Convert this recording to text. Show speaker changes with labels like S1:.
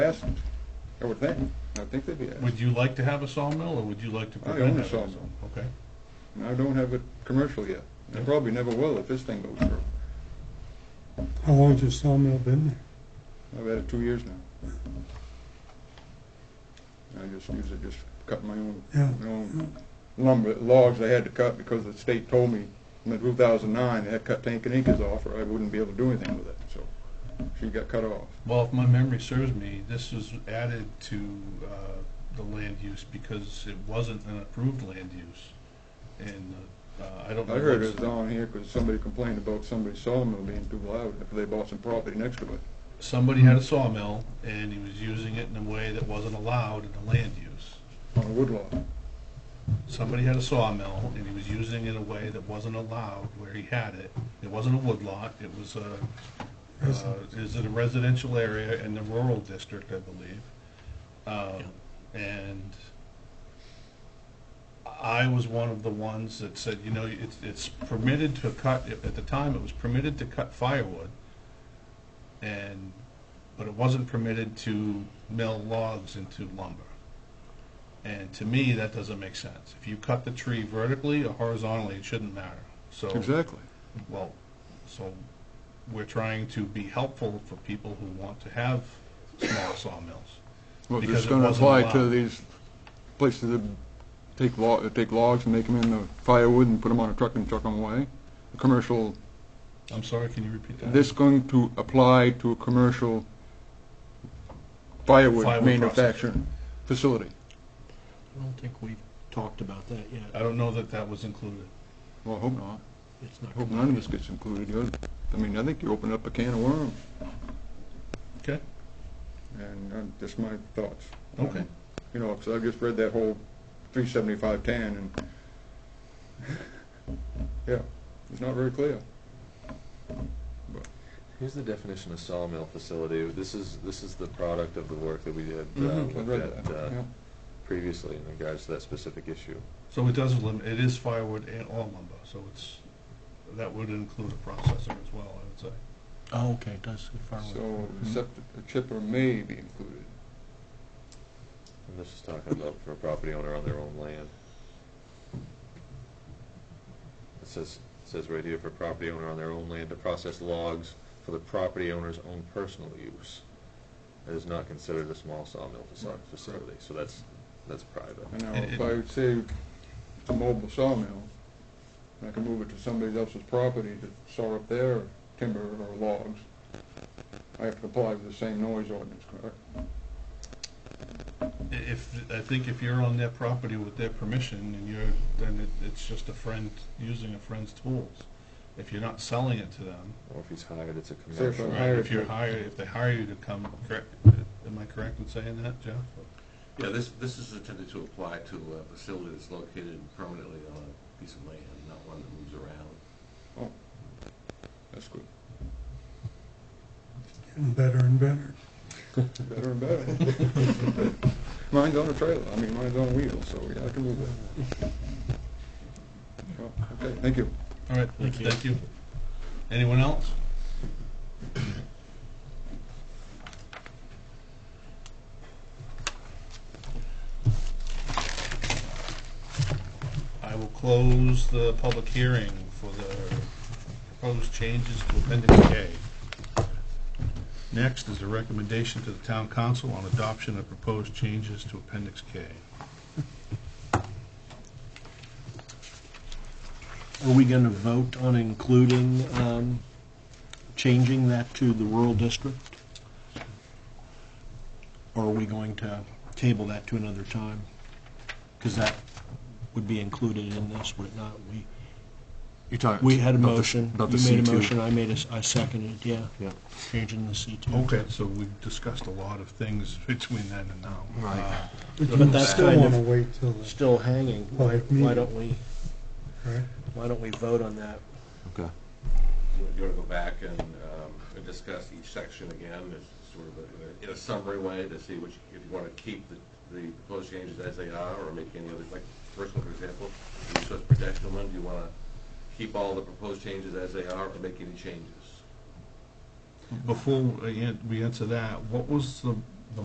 S1: asked them, I would think, I think they'd be asked.
S2: Would you like to have a sawmill, or would you like to
S1: I own
S2: prevent
S1: a
S2: having a
S1: sawmill.
S2: sawmill? Okay.
S1: And I don't have it commercial yet. I
S2: Yeah.
S1: probably never will if this thing goes through.
S3: How long's your sawmill been there?
S1: I've had it two years now. I just use it, just cut my own,
S3: Yeah.
S1: my own lumber, logs I had to cut because the state told me in two thousand nine, they had to cut Tankaninkas off or I wouldn't be able to do anything with it, so she got cut off.
S2: Well, if my memory serves me, this was added to uh, the land use because it wasn't an approved land use. And uh, I don't know.
S1: I heard
S2: what's-
S1: it was on here because somebody complained about somebody's sawmill being too loud after they bought some property next to it.
S2: Somebody had a sawmill, and he was using it in a way that wasn't allowed in the land use.
S1: on a woodlot.
S2: Oh. Somebody had a sawmill, and he was using it in a way that wasn't allowed where he had it. It wasn't a woodlot, it was a, uh, is it a residential area in the rural district, I believe. Um, And I was one of the ones that said, you know, it's, it's permitted to cut, at the time, it was permitted to cut firewood, and, but it wasn't permitted to mill logs into lumber. And to me, that doesn't make sense. If you cut the tree vertically or horizontally, it shouldn't matter. So,
S1: Exactly.
S2: well, so we're trying to be helpful for people who want to have small sawmills.
S1: Well, it's
S2: Because it
S1: going to
S2: wasn't
S1: apply to
S2: allowed.
S1: these places that take lo, that take logs and make them into firewood and put them on a truck and truck them away. The commercial,
S2: I'm sorry, can you repeat that?
S1: this going to apply to a commercial firewood
S2: Firewood
S1: manufacturing facility.
S4: I don't think we've talked about that
S2: I
S4: yet.
S2: don't know that that was included.
S1: Well, I hope not.
S4: It's not.
S1: I hope none of this gets included. You're- I mean, I think you open up a can of worms,
S2: Okay.
S1: and uh, just my thoughts.
S2: Okay.
S1: Um, You know, 'cause I've just read that whole 375-10, and, yeah, it's not very clear.
S5: Here's the definition of sawmill facility. This is, this is the product of the work that we had uh,
S1: Mhm, I read
S5: looked at
S1: that,
S5: uh,
S1: yeah.
S5: previously in regards to that specific issue.
S2: So it does limit, it is firewood and all lumber, so it's, that would include a processor as well, I would say.
S4: Oh, okay, it does. Mm-hmm. far away.
S1: So, except that the chipper may be included.
S5: And this is talking about for a property owner on their own land. It says, it says right here, for a property owner on their own land to process logs for the property owner's own personal use. It is not considered a small sawmill faci-
S1: Right, right.
S5: facility, so that's, that's private.
S1: And now,
S2: It- it-
S1: if I would say it's a mobile sawmill, and I can move it to somebody else's property to saw up their timber or logs, I have to comply with the same noise ordinance, correct?
S2: I- If, I think if you're on their property with their permission and you're, then it, it's just a friend, using a friend's tools. If you're not selling it to them,
S5: Or if he's hired, it's a
S1: if
S5: commercial.
S1: I'm
S2: right,
S1: hired
S2: if you're
S1: to-
S2: hired, if they hire you to come, correct, am I correct in saying that, Jeff?
S6: Yeah, this, this is intended to apply to a facility that's located permanently on a piece of land, not one that moves around.
S1: That's good.
S3: Getting better and better.
S1: Better and better. Mine's on a trailer, I mean, mine's on wheels, so yeah, I can move it. Well, Okay, thank you.
S2: All right,
S4: Thank you.
S2: thank you. Anyone else? I will close the public hearing for the proposed changes to Appendix K. Next is a recommendation to the town council on adoption of proposed changes to Appendix K.
S4: Are we going to vote on including, um, changing that to the rural district? Or are we going to table that to another time? Because that would be included in this, would it not? We,
S7: You're talking.
S4: we had a
S7: about the-
S4: motion.
S7: About the
S4: You made a
S7: C2.
S4: motion, I made a, s- I seconded, yeah.
S7: Yeah.
S4: Changing the C2.
S2: Okay, so we've discussed a lot of things between then and now.
S7: Right.
S2: Uh,
S4: But that's
S3: Still
S4: kind
S3: want
S4: of
S3: to wait till, the-
S4: still hanging. Why,
S3: Public meeting.
S4: why don't we,
S3: right?
S4: why don't we vote on that?
S7: Okay.
S6: You want to go back and, um, and discuss each section again, as sort of a- in a summary way to see which, if you want to keep the, the proposed changes as they are, or make any other, like, first one, for example, the resource protection one, do you want to keep all the proposed changes as they are, or make any changes?
S2: Before we an- we answer that, what was the